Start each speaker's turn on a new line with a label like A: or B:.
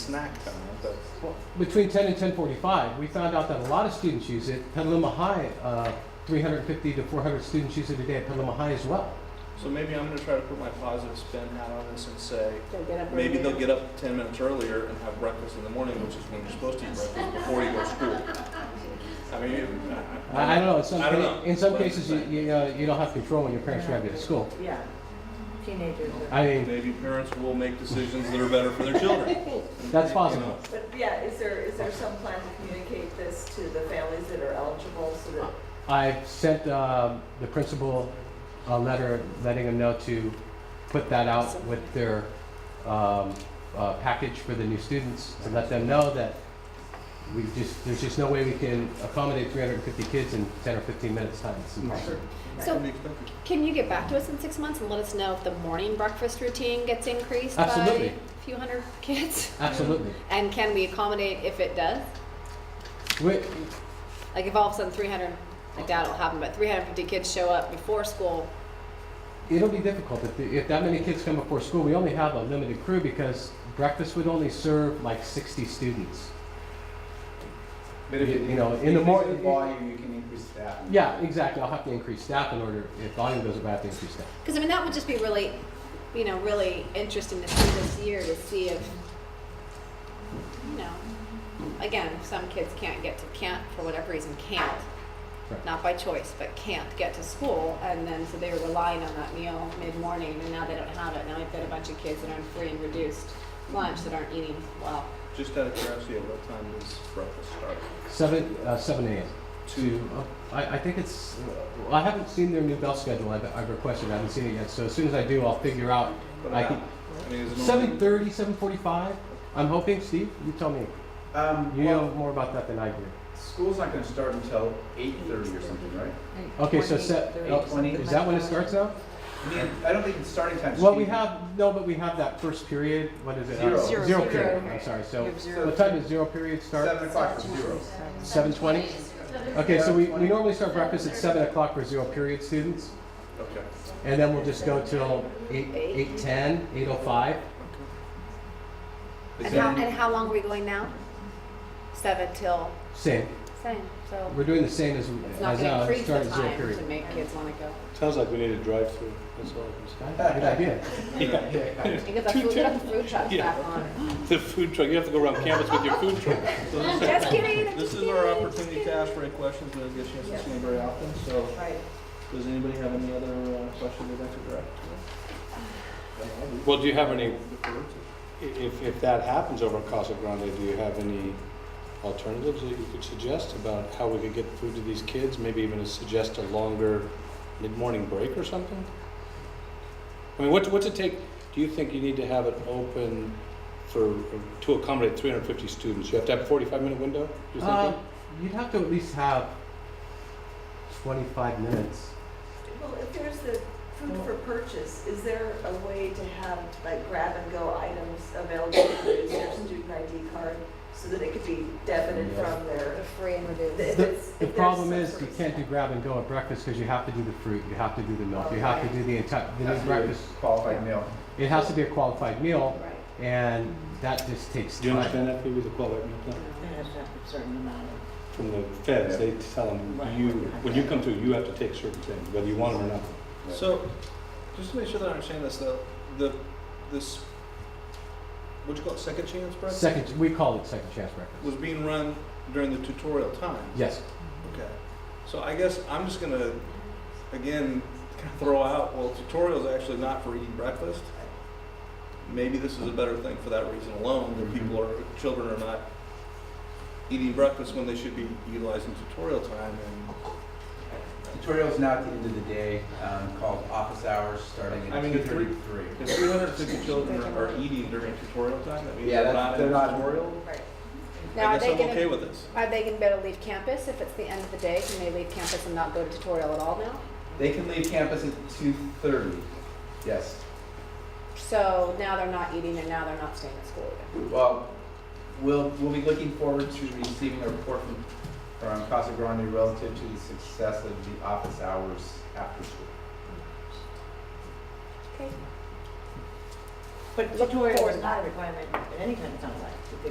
A: snack time, but
B: between 10 and 1045, we found out that a lot of students use it. Petaluma High, uh, 350 to 400 students use it a day at Petaluma High as well.
A: so maybe I'm gonna try to put my positive spin hat on this and say,
C: They'll get up
A: maybe
C: earlier.
A: they'll get up ten minutes earlier and have breakfast in the morning, which is when you're supposed to eat breakfast before you go to school. I mean, I,
B: I, I don't know. In some,
A: I don't
B: ca-
A: know.
B: In some
A: What do you
B: cases, you,
A: think?
B: you, uh, you don't have control when your parents drive you to school.
C: Yeah, teenagers.
A: Uh,
C: are-
B: I mean,
A: Maybe parents will make decisions that are better for their children.
B: that's
A: You know,
B: possible.
D: But yeah, is there, is there some plan to communicate this to the families that are eligible so that?
B: I sent um, the principal a letter letting them know to put that out with their um, uh, package for the new students to let them know that we just there's just no way we can accommodate 350 kids in 10 or 15 minutes time. It's impossible.
A: that
E: So-
A: can be expected.
E: Can you get back to us in six months and let us know if the morning breakfast routine gets increased
B: Absolutely.
E: by a few hundred kids?
B: Absolutely.
E: And can we accommodate if it does?
B: We,
E: Like if all of a sudden 300, I doubt it'll happen, but 350 kids show up before school.
B: it'll be difficult if, the, if that many kids come before school. We only have a limited crew because breakfast would only serve like 60 students.
F: But if
B: You-
F: you,
B: you know, in the
F: increase
B: mor-
F: the volume, you can increase that.
B: Yeah, exactly. I'll have to increase staff in order if volume goes up. I have to increase staff.
E: Because I mean, that would just be really, you know, really interesting to see this year to see if, you know, again, if some kids can't get to, can't, for whatever reason, can't.
B: Right.
E: Not by choice, but can't get to school, and then, so they were relying on that meal mid-morning, and now they don't have it. Now we've got a bunch of kids that are on free and reduced lunch that aren't eating well.
A: Just out of curiosity, at what time does breakfast start?
B: Seven, uh, seven AM. To, oh, I, I think it's, well, I haven't seen their new bell schedule, I've, I've requested, I haven't seen it yet, so as soon as I do, I'll figure out.
A: What
B: I
A: about-
B: can,
A: I mean, is it normally-
B: seven thirty, seven forty-five, I'm hoping, Steve, you tell me,
F: Um,
B: you know
F: well,
B: more about that than I do.
F: school's not gonna start until eight thirty or something, right?
B: Okay, so set,
C: 28,
B: oh,
F: 20.
B: is that when it starts now?
F: I mean, I don't think it's starting time.
B: Well, we have, no, but we have that first period, what is it? Uh,
C: Zero.
F: Zero.
B: Zero
C: Zero.
B: period, I'm sorry, so,
C: You have zero.
B: what time does zero period start?
F: Seven o'clock to zero.
B: Seven twenty? Okay, so we, we normally start breakfast at seven o'clock for zero period students.
A: Okay.
B: And then we'll just go till eight, eight ten, eight oh five.
F: Is
E: And
F: there
E: how,
F: any-
E: and how long are we going now? Seven till,
B: Same.
E: same, so
B: We're doing the same as,
E: it's not
B: as
E: gonna
B: now,
E: increase
B: start
E: the
B: at zero
E: time
B: period.
E: to make kids wanna go.
G: Sounds like we need a drive-through, that's all I
B: Good idea.
E: You get the food, get the food trucks
G: Yeah.
E: back on.
G: can say. The food truck, you have to go around campus with your food truck.
A: So this-
E: Just kidding. I'm
A: This
E: just
A: is our
E: kidding, I'm
A: opportunity
E: just
A: to ask Ray questions, we don't get a chance to see them very often, so
D: Right.
A: does anybody have any other uh, questions they'd like to direct? to us?
G: Well, do you have any,
A: Defer to-
G: if, if that happens over at Casa Grande, do you have any alternatives that you could suggest about how we could get food to these kids? Maybe even suggest a longer mid-morning break or something? I mean, what's, what's it take, do you think you need to have it open for, to accommodate 350 students? You have to have a 45-minute window, you're thinking?
B: Um, you'd have to at least have twenty-five minutes.
D: Well, if there's the food for purchase, is there a way to have like grab and go items available for their student ID card so that it could be debited from their?
E: Free and reduced.
D: if
B: The,
D: it's- if
B: the
D: there's
B: problem
D: some
B: is
D: sort
B: you
D: of
B: can't do
D: snack.
B: grab and go at breakfast because you have to do the fruit, you have to do the milk, you have to do the entire, the new
F: Has to be a
B: breakfast.
F: Qualified meal.
B: It has to be a qualified meal
D: Right.
B: and that just takes
G: Do you
B: time.
G: understand that, Phoebe, the qualified meal plan?
C: They have to have a certain amount of.
G: From the feds, they tell them, you, when you come through, you have to take certain things, whether you want them or not.
A: So, just to make sure that I understand this, though, the, this, what you call it, second chance breakfast?
B: Second, we call it second chance breakfast.
A: Was being run during the tutorial times?
B: Yes.
A: Okay, so I guess I'm just gonna, again, kinda throw out, well, tutorial's actually not for eating breakfast. Maybe this is a better thing for that reason alone, that
F: Mm-hmm.
A: people are, children are not eating breakfast when they should be utilizing tutorial time and.
F: Tutorial's now at the end of the day, um, called office hours, starting
A: I
F: at
A: mean,
F: two
A: the three-
F: thirty-three.
A: If three hundred and fifty children are eating during tutorial time, that means
F: Yeah,
A: they're
F: that's-
A: not in
F: they're not-
A: tutorial.
D: Right.
E: Now,
A: I
E: are
A: guess
E: they
A: I'm okay
E: gonna,
A: with this.
E: are they gonna be able to leave campus if it's the end of the day? Can they leave campus and not go to tutorial at all now?
F: They can leave campus at two thirty. Yes.
E: So now they're not eating and now they're not staying at school either.
F: Well, we'll, we'll be looking forward to receiving a report from, from Casa Grande relative to the success of the office hours after school.
E: Okay.
D: But Victoria is not a requirement at any time, it sounds like. You could